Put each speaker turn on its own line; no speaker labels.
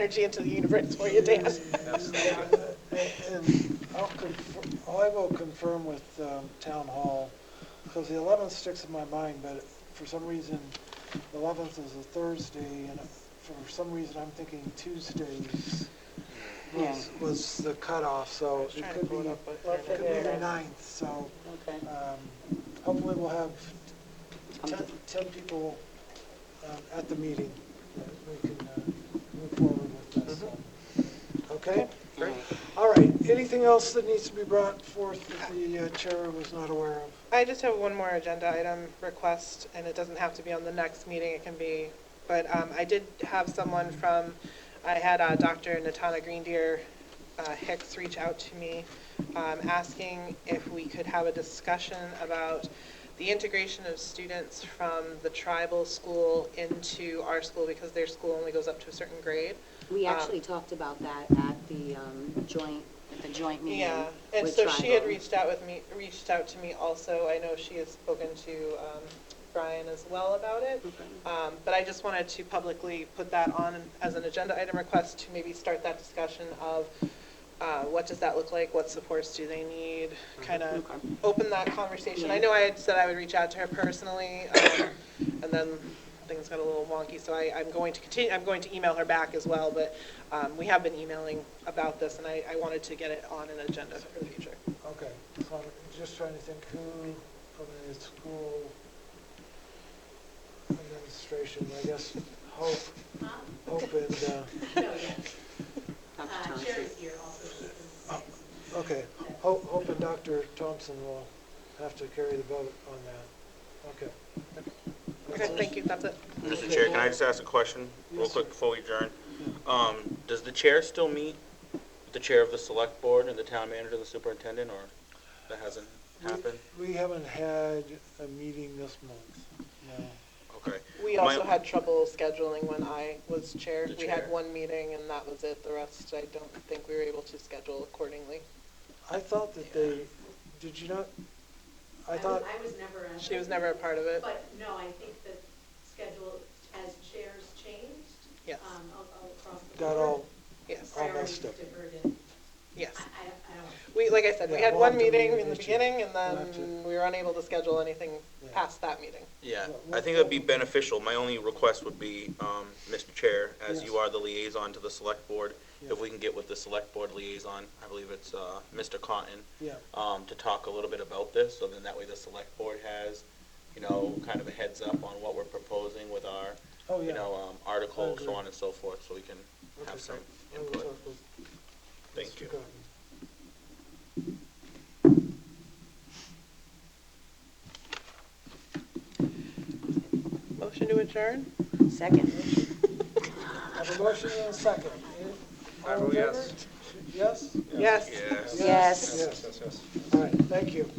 energy into the universe for you, Dan.
And I'll confirm, I will confirm with um, Town Hall, because the 11th sticks in my mind, but for some reason, the 11th is a Thursday, and for some reason, I'm thinking Tuesdays was, was the cutoff, so it
Trying to
could be,
pull it up, but
it could be the 9th, so
Okay.
um, hopefully we'll have 10 10 people um, at the meeting that we can uh, move forward with this,
Mm-hmm.
so. okay?
Great.
All right, anything else that needs to be brought forth that the uh, chair was not aware of?
I just have one more agenda item request, and it doesn't have to be on the next meeting, it can be, but um, I did have someone from, I had uh, Dr. Natana Greendeer uh, Hicks reach out to me, um, asking if we could have a discussion about the integration of students from the tribal school into our school, because their school only goes up to a certain grade.
We
Um,
actually talked about that at the um, joint, at the joint meeting.
Yeah, and
with
so she had
Tribal.
reached out with me, reached out to me also. I know she has spoken to um, Brian as well about it. Um, But I just wanted to publicly put that on as an agenda item request to maybe start that discussion of uh, what does that look like? What supports do they need? Kind of
Mm-hmm. Okay.
open that conversation. I
Yeah.
know I had said I would reach out to her personally, um, and then things got a little wonky, so I, I'm going to continue, I'm going to email her back as well, but um, we have been emailing about this, and I, I wanted to get it on an agenda for the future.
Okay, so I'm just trying to think who from the school administration, I guess, Hope,
Huh?
Hope and, uh,
No, yes.
Dr.
Uh,
Thompson.
Sherry's here also. She's been sick.
okay, Hope Hope and Dr. Thompson will have to carry the vote on that. Okay.
Okay, thank you, that's it.
Mr. Chair, can I just ask a question real
Yes,
quick
sir.
before we adjourn? Um, does the chair still meet with the chair of the select board and the town manager and the superintendent, or that hasn't happened?
We haven't had a meeting this month, no.
Okay.
We
My-
also had trouble scheduling when I was chair.
The
We
chair.
had one meeting, and that was it. The rest, I don't think we were able to schedule accordingly.
I thought that they, did you not, I
was-
thought,
I was never. at
She was
it.
never a part of it.
But no, I think the schedule as chairs changed.
Yes.
um, all- all across the
got
board,
all,
Yes,
all messed
Priorities
up.
diverted.
yes.
I, I don't- I don't,
We, like I said, we
Yeah,
had
we'll
one
have to
meeting
meet
in the
with you.
beginning, and
We'll have
then we were unable to schedule anything
Yeah.
past that meeting.
Yeah,
Yeah,
I think that'd be beneficial. My only request would be, um, Mr. Chair, as you
Yes.
are the liaison to the select board, if
Yeah.
we can get with the select board liaison, I believe it's, uh, Mr. Cotton,
yeah,
um, to talk a little bit about this, so then that way the select board has, you know, kind of a heads up on what we're proposing with our,
oh,
you
yeah.
know, um, articles, so
agree.
on and so forth, so we can
Okay,
have some
great. I will
input.
talk with
Thank
Mr.
you.
Cotton.
Motion to adjourn?
Second.
I have a motion and a second.
I
All in
vote yes.
favor? Yes?
Yes.
Yes.
Yes.
Yes. All right, thank you.